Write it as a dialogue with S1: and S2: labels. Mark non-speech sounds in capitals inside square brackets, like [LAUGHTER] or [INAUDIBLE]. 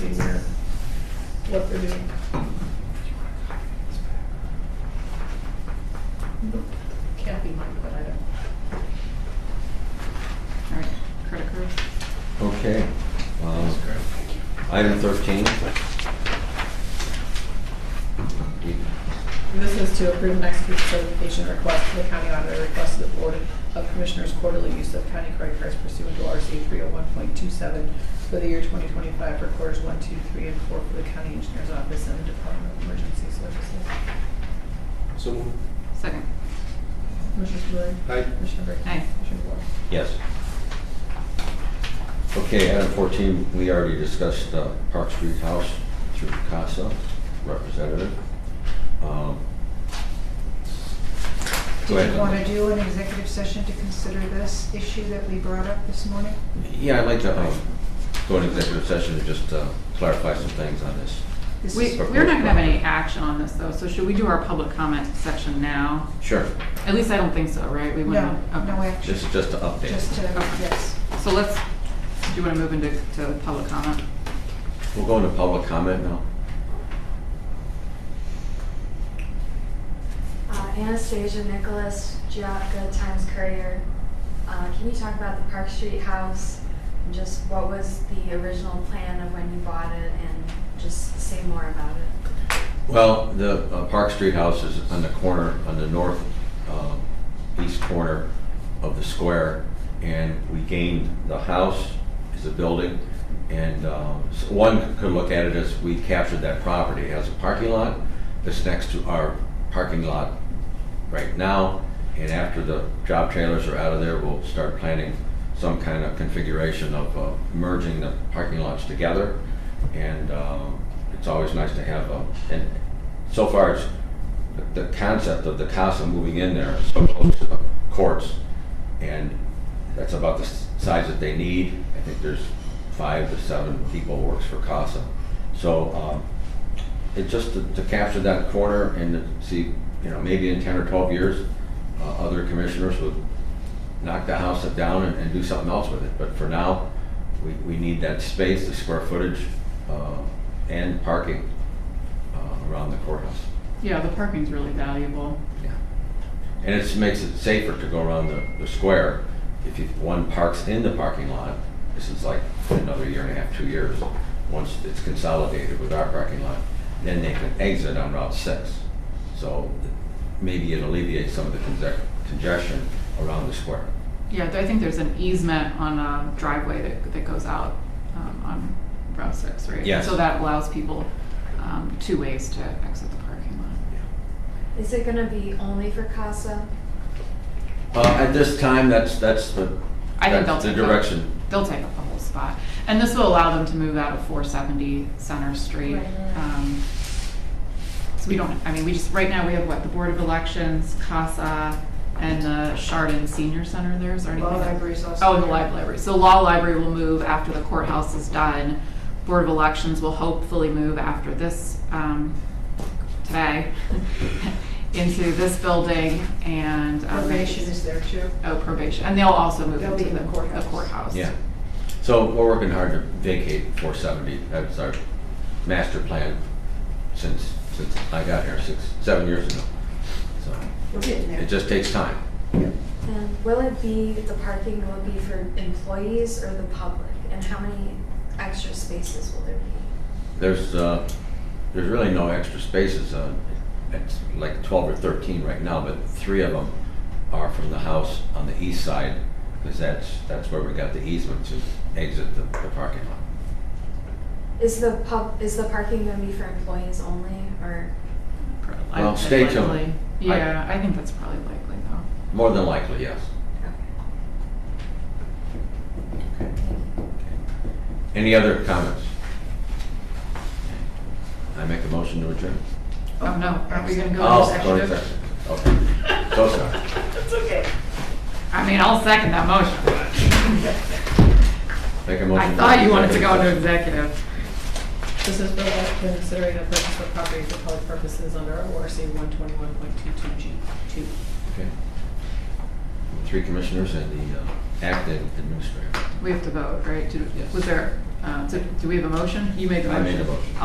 S1: they're doing. Can't be mine, but I don't.
S2: All right, Kurt approves.
S3: Okay. um, Item 13.
S1: This is to approve and execute the certification request for the county auditor request to the Board of Commissioners quarterly use of county credit cards pursuant to RC 301.27 for the year 2025 for quarters one, two, three, and 4 for the county engineer's office and the Department of Emergency Services.
S4: So moved.
S2: Second.
S1: Commissioner Spudler.
S4: Aye.
S1: Commissioner Brink.
S2: Aye.
S1: Commissioner DeWort.
S3: Yes. Okay, item 14, we already discussed uh, Park Street House through CASA representative. Um, Go
S5: Do
S3: ahead.
S5: you want to do an executive session to consider this issue that we brought up this morning?
S3: Yeah, I'd like to um, go into executive session and just uh, clarify some things on this.
S5: This
S2: We,
S5: is-
S2: we're not gonna have any action on this though, so should we do our public comment section now?
S3: Sure,
S2: At least I don't think so, right? We
S5: No,
S2: wouldn't- okay.
S5: no action,
S3: this is just to update.
S5: just to, yes.
S2: So let's, do you wanna move into, to public comment?
S3: We'll go into public comment now.
S6: Uh, Anastasia Nicholas, Giacca Times Courier. Uh, Can you talk about the Park Street house? and Just what was the original plan of when you bought it and just say more about it?
S3: Well, the uh, Park Street house is on the corner, on the north um, east corner of the square, and we gained the house as a building, and um, so one could look at it as we captured that property. It has a parking lot that's next to our parking lot right now, and after the job trailers are out of there, we'll start planning some kind of configuration of uh, merging the parking lots together. And um, it's always nice to have, a- and so far, it's, the- the concept of the casa moving in there is so close to the courts, and that's about the s- size that they need. I think there's five to seven people works for casa. So um, it just to, to capture that corner and to see, you know, maybe in ten or twelve years, uh, other commissioners would knock the house down and, and do something else with it. But for now, we, we need that space, the square footage, uh, and parking, uh, around the courthouse.
S2: Yeah, the parking's really valuable.
S3: Yeah. And it makes it safer to go around the, the square. If you, one parks in the parking lot, this is like another year and a half, two years, once it's consolidated with our parking lot, then they can exit on Route 6. So maybe it alleviates some of the conge- congestion around the square.
S2: Yeah, I think there's an easement on a driveway that, that goes out um, on Route 6, right?
S3: Yes.
S2: So that allows people um, two ways to exit the parking lot.
S6: Is it gonna be only for CASA?
S3: Uh, At this time, that's, that's the,
S2: I think
S3: that's
S2: they'll
S3: the
S2: take up-
S3: direction.
S2: They'll take up the whole spot. And this will allow them to move out of 470 Center Street.
S6: Right.
S2: Um, So we don't, I mean, we just, right now, we have what, the Board of Elections, CASA, and the Chardon Senior Center there, is there anything?
S5: Law
S2: else?
S5: libraries also.
S2: Oh, and the Live Library. So Law Library will move after the courthouse is done. Board of Elections will hopefully move after this, um, today, [LAUGHS] into this building and. um,
S5: Probation is there too.
S2: Oh, probation. And they'll also move
S5: They'll
S2: into
S5: be in
S2: the
S5: the courthouse.
S2: the courthouse.
S3: Yeah. So we're working hard to vacate 470. That's our master plan since, since I got here, six, seven years ago. So
S5: We're getting
S3: it
S5: there.
S3: just takes time.
S6: And will it be, the parking will be for employees or the public? And how many extra spaces will there be?
S3: There's, uh, there's really no extra spaces. uh, It's like 12 or 13 right now, but three of them are from the house on the east side because that's, that's where we got the easement to exit the the parking lot.
S6: Is the pub, is the parking gonna be for employees only or?
S2: I
S3: Well,
S2: think
S3: stay
S2: that's
S3: tuned.
S2: likely.
S3: I-
S2: Yeah, I think that's probably likely though.
S3: More than likely, yes.
S6: okay.
S3: Any other comments? I make a motion to adjourn.
S2: Oh, no, are we gonna go
S3: Oh,
S2: into
S3: go to
S2: executive?
S3: executive. Okay, so sorry.
S2: I mean, I'll second that motion.
S3: Make a motion.
S2: I thought you wanted to go into executive.
S1: This is for like considering a purchase of property for public purposes under ORC 121.22G2.
S3: Okay. Three commissioners and the uh, acting administrator.
S2: We have to vote, right? Do-
S3: Yes.
S2: Was there, uh, do do we have a motion? You made the
S3: I
S2: motion.
S3: made a motion.